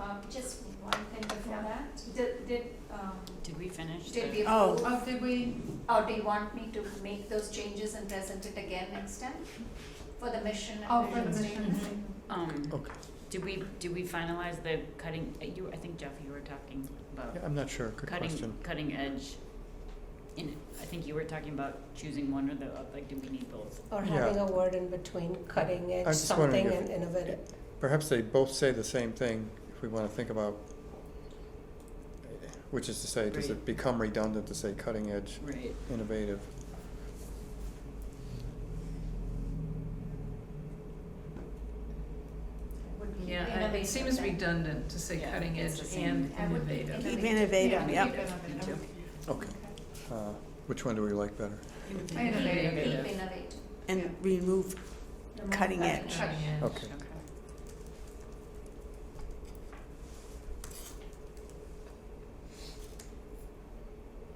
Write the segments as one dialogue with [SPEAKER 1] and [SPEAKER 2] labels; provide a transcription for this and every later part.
[SPEAKER 1] Um, just one thing before that, did, did, um,
[SPEAKER 2] Did we finish?
[SPEAKER 1] did
[SPEAKER 2] the-
[SPEAKER 1] we
[SPEAKER 3] Oh.
[SPEAKER 1] approve,
[SPEAKER 4] Oh, did we,
[SPEAKER 1] or do you want me to make those changes and present it again next time? For the mission
[SPEAKER 4] oh,
[SPEAKER 1] and
[SPEAKER 4] for the
[SPEAKER 1] vision
[SPEAKER 4] mission
[SPEAKER 1] statement?
[SPEAKER 4] thing.
[SPEAKER 2] Um,
[SPEAKER 3] Okay,
[SPEAKER 2] did we, did we finalize the cutting, uh, you, I think Jeff, you were talking about
[SPEAKER 3] Yeah, I'm not sure, good
[SPEAKER 2] cutting,
[SPEAKER 3] question.
[SPEAKER 2] cutting edge. In, I think you were talking about choosing one or the, other. like, do we need both?
[SPEAKER 5] Or
[SPEAKER 3] Yeah.
[SPEAKER 5] having a word in between cutting
[SPEAKER 3] I
[SPEAKER 5] edge,
[SPEAKER 3] was just wondering
[SPEAKER 5] something
[SPEAKER 3] if-
[SPEAKER 5] and innovative.
[SPEAKER 3] Perhaps they both say the same thing, if we wanna think about, eh, which is to say, does
[SPEAKER 2] Right.
[SPEAKER 3] it become redundant to say cutting edge,
[SPEAKER 2] Right.
[SPEAKER 3] innovative?
[SPEAKER 1] Would be
[SPEAKER 4] Yeah, I- it
[SPEAKER 1] innovative
[SPEAKER 4] seems
[SPEAKER 1] then.
[SPEAKER 4] redundant to say
[SPEAKER 2] Yeah,
[SPEAKER 4] cutting
[SPEAKER 2] it's
[SPEAKER 4] edge
[SPEAKER 2] the same.
[SPEAKER 4] and
[SPEAKER 1] I would be
[SPEAKER 4] innovative.
[SPEAKER 1] innovative.
[SPEAKER 3] Keep
[SPEAKER 1] innovative,
[SPEAKER 4] Yeah,
[SPEAKER 1] yep.
[SPEAKER 4] keep innovative.
[SPEAKER 3] Okay, uh, which one do we like better?
[SPEAKER 4] Innovative.
[SPEAKER 1] Keep
[SPEAKER 2] Innovative.
[SPEAKER 1] innovative.
[SPEAKER 4] Yeah.
[SPEAKER 6] and remove
[SPEAKER 1] Remove
[SPEAKER 6] Cutting edge.
[SPEAKER 4] Cutting edge.
[SPEAKER 3] Okay,
[SPEAKER 2] Okay.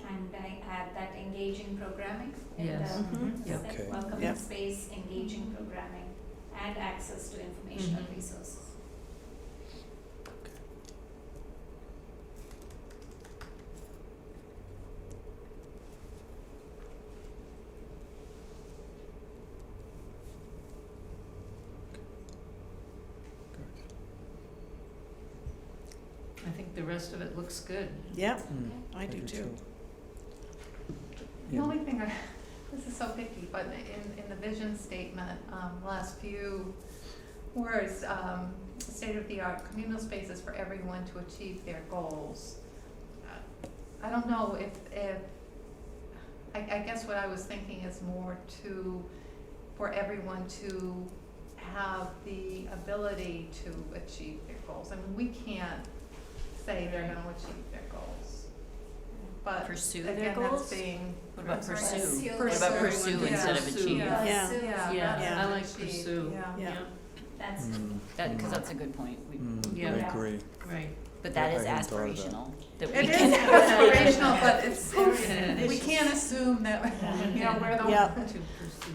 [SPEAKER 1] And I add that engaging programming in
[SPEAKER 4] Yes.
[SPEAKER 1] the
[SPEAKER 6] Mhm.
[SPEAKER 4] Yep.
[SPEAKER 1] set,
[SPEAKER 3] Okay.
[SPEAKER 1] welcoming
[SPEAKER 6] Yep.
[SPEAKER 1] space, engaging programming, and access to informational
[SPEAKER 4] Mhm.
[SPEAKER 1] resources.
[SPEAKER 6] Mm.
[SPEAKER 4] I think the rest of it looks good.
[SPEAKER 6] Yep,
[SPEAKER 3] Mm,
[SPEAKER 6] I do too.
[SPEAKER 4] The
[SPEAKER 3] Yeah.
[SPEAKER 4] only thing I, this is so picky, but in, in the vision statement, um, last few words, um, state-of-the-art communal spaces for everyone to achieve their goals. Uh, I don't know if, if, I, I guess what I was thinking is more to, for everyone to have the ability to achieve their goals. I mean, we can't say they're gonna achieve their goals, but
[SPEAKER 2] Pursue their
[SPEAKER 4] again, that's
[SPEAKER 2] goals?
[SPEAKER 4] being.
[SPEAKER 2] What about
[SPEAKER 4] Sorry.
[SPEAKER 2] pursue?
[SPEAKER 1] Pursue.
[SPEAKER 2] What about
[SPEAKER 1] Pursue.
[SPEAKER 2] pursue
[SPEAKER 4] Yeah.
[SPEAKER 2] instead of
[SPEAKER 4] Pursue.
[SPEAKER 2] achieve?
[SPEAKER 4] Yeah.
[SPEAKER 6] Yeah.
[SPEAKER 1] Pursue.
[SPEAKER 4] Yeah,
[SPEAKER 2] Yeah.
[SPEAKER 4] rather
[SPEAKER 6] I
[SPEAKER 4] than
[SPEAKER 6] like
[SPEAKER 4] achieve.
[SPEAKER 6] pursue.
[SPEAKER 4] Yeah.
[SPEAKER 6] Yeah.
[SPEAKER 1] uh, That's
[SPEAKER 3] Mm,
[SPEAKER 2] That, cause
[SPEAKER 3] mm,
[SPEAKER 2] that's a good point, we,
[SPEAKER 3] mm,
[SPEAKER 4] Yeah.
[SPEAKER 3] I
[SPEAKER 1] Yeah.
[SPEAKER 3] agree.
[SPEAKER 4] Right.
[SPEAKER 2] but that
[SPEAKER 3] Yeah,
[SPEAKER 2] is
[SPEAKER 3] I hadn't thought of that.
[SPEAKER 2] aspirational, that we
[SPEAKER 4] It
[SPEAKER 2] can.
[SPEAKER 4] is aspirational, but it's,
[SPEAKER 2] Oof.
[SPEAKER 4] we can't assume that, you know, we're the
[SPEAKER 6] Yeah.
[SPEAKER 4] one to pursue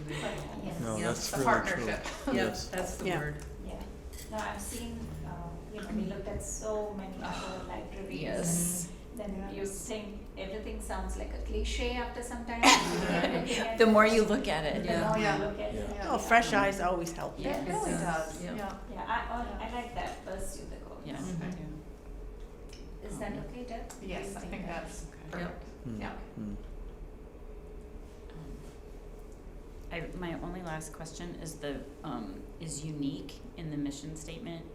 [SPEAKER 1] Yes.
[SPEAKER 3] No,
[SPEAKER 4] Yeah,
[SPEAKER 3] that's
[SPEAKER 4] the
[SPEAKER 3] really true.
[SPEAKER 4] partnership.
[SPEAKER 3] Yes.
[SPEAKER 4] that's
[SPEAKER 6] Yeah.
[SPEAKER 1] Yeah, no, I've seen, um, you know, we looked at so many other libraries.
[SPEAKER 2] Yes.
[SPEAKER 4] Mm-hmm.
[SPEAKER 1] Then you think everything sounds like a cliche after some time. you keep looking at
[SPEAKER 2] The more
[SPEAKER 1] it,
[SPEAKER 2] you look at it,
[SPEAKER 1] The
[SPEAKER 4] Yeah.
[SPEAKER 1] more
[SPEAKER 4] Yeah.
[SPEAKER 1] you look at it.
[SPEAKER 4] Yeah.
[SPEAKER 6] Oh, fresh eyes always help.
[SPEAKER 2] Yeah.
[SPEAKER 4] It really
[SPEAKER 2] Yes.
[SPEAKER 4] does,
[SPEAKER 2] Yeah.
[SPEAKER 4] yeah. Mm-hmm.
[SPEAKER 1] Yeah, I, I, I like that, pursue the goals.
[SPEAKER 2] yeah, Mm-hmm.
[SPEAKER 4] Mhm.
[SPEAKER 2] yeah.
[SPEAKER 1] Is that okay, Deb? Do you
[SPEAKER 4] Yes, I think that's
[SPEAKER 2] Okay.
[SPEAKER 4] perfect.
[SPEAKER 3] Mm,
[SPEAKER 4] Yeah.
[SPEAKER 3] mm.
[SPEAKER 2] Um, I, my only last question is the, um, is unique in the mission statement.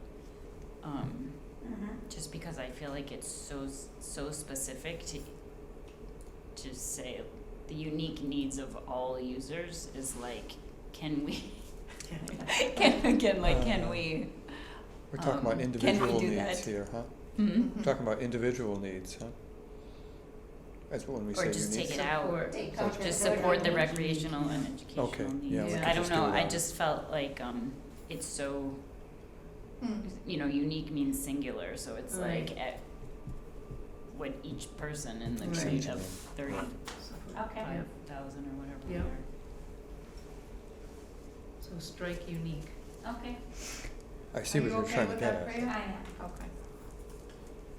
[SPEAKER 2] Um,
[SPEAKER 1] Mhm.
[SPEAKER 2] just because I feel like it's so, s- so specific to, to say the unique needs of all users is like, can we, can, again, like, can
[SPEAKER 3] Uh,
[SPEAKER 2] we,
[SPEAKER 3] We're talking about
[SPEAKER 2] Um, can we
[SPEAKER 3] individual
[SPEAKER 2] do
[SPEAKER 3] needs
[SPEAKER 2] that?
[SPEAKER 3] here, huh?
[SPEAKER 2] hmm?
[SPEAKER 3] We're Talking about individual needs, huh? That's when we
[SPEAKER 2] Or
[SPEAKER 3] say
[SPEAKER 2] just
[SPEAKER 3] unique.
[SPEAKER 2] take it out,
[SPEAKER 1] Take out
[SPEAKER 2] just
[SPEAKER 1] the
[SPEAKER 2] support the
[SPEAKER 1] word.
[SPEAKER 2] recreational and educational needs.
[SPEAKER 3] Okay, yeah,
[SPEAKER 4] we
[SPEAKER 2] I
[SPEAKER 3] could
[SPEAKER 2] don't
[SPEAKER 3] just do
[SPEAKER 2] know, I
[SPEAKER 3] that.
[SPEAKER 2] just felt like, um, it's so,
[SPEAKER 4] Mm.
[SPEAKER 2] you know, unique means singular, so it's
[SPEAKER 4] Right.
[SPEAKER 2] like at what each person in the
[SPEAKER 4] Right.
[SPEAKER 2] grade of thirty-five
[SPEAKER 1] Okay.
[SPEAKER 2] thousand or whatever we
[SPEAKER 4] Yeah.
[SPEAKER 2] are.
[SPEAKER 4] So strike unique.
[SPEAKER 1] Okay,
[SPEAKER 3] I see what you're trying to get
[SPEAKER 4] Are
[SPEAKER 3] at.
[SPEAKER 4] you okay with that, Priya?
[SPEAKER 1] I am,
[SPEAKER 4] Okay.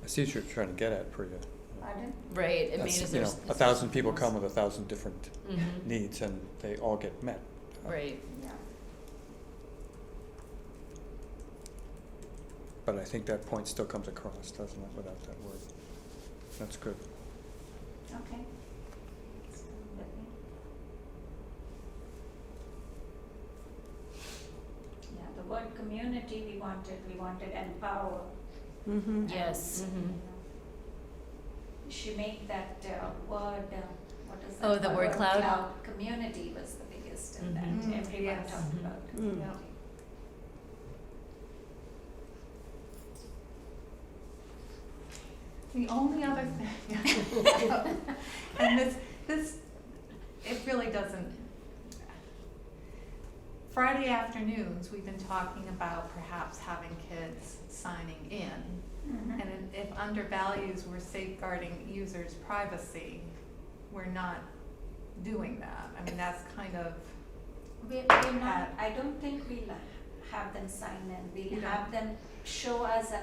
[SPEAKER 3] I see what you're trying to get at, Priya.
[SPEAKER 1] pardon?
[SPEAKER 2] Right, it
[SPEAKER 3] That's-
[SPEAKER 2] means
[SPEAKER 3] you
[SPEAKER 2] there's.
[SPEAKER 3] know, a thousand people come with a thousand different
[SPEAKER 4] Mm-hmm.
[SPEAKER 3] needs and they all get met. uh,
[SPEAKER 2] Right,
[SPEAKER 1] Yeah.
[SPEAKER 3] But I think that point still comes across, doesn't it, without that word? That's good.
[SPEAKER 1] Okay. So, let me- Yeah, the word community, we wanted, we wanted empower.
[SPEAKER 6] Mm-hmm.
[SPEAKER 2] yes.
[SPEAKER 1] you know. She made that uh, word, uh, what is that?
[SPEAKER 2] Oh, the word cloud? Mm-hmm.
[SPEAKER 1] community was the biggest in
[SPEAKER 4] Mhm.
[SPEAKER 1] that,
[SPEAKER 4] Mm,
[SPEAKER 1] everyone
[SPEAKER 4] yes.
[SPEAKER 1] talked
[SPEAKER 4] Mhm.
[SPEAKER 1] about
[SPEAKER 6] Mm.
[SPEAKER 1] community.
[SPEAKER 4] The only other thing, and this, this, it really doesn't. Friday afternoons, we've been talking about perhaps having kids signing in.
[SPEAKER 1] Mhm.
[SPEAKER 4] And if if under values, we're safeguarding users' privacy, we're not doing that. I mean, that's kind of,
[SPEAKER 1] We, we're not, I don't think we'll have them sign in,
[SPEAKER 4] You
[SPEAKER 1] we'll
[SPEAKER 4] don't?
[SPEAKER 1] have them show us an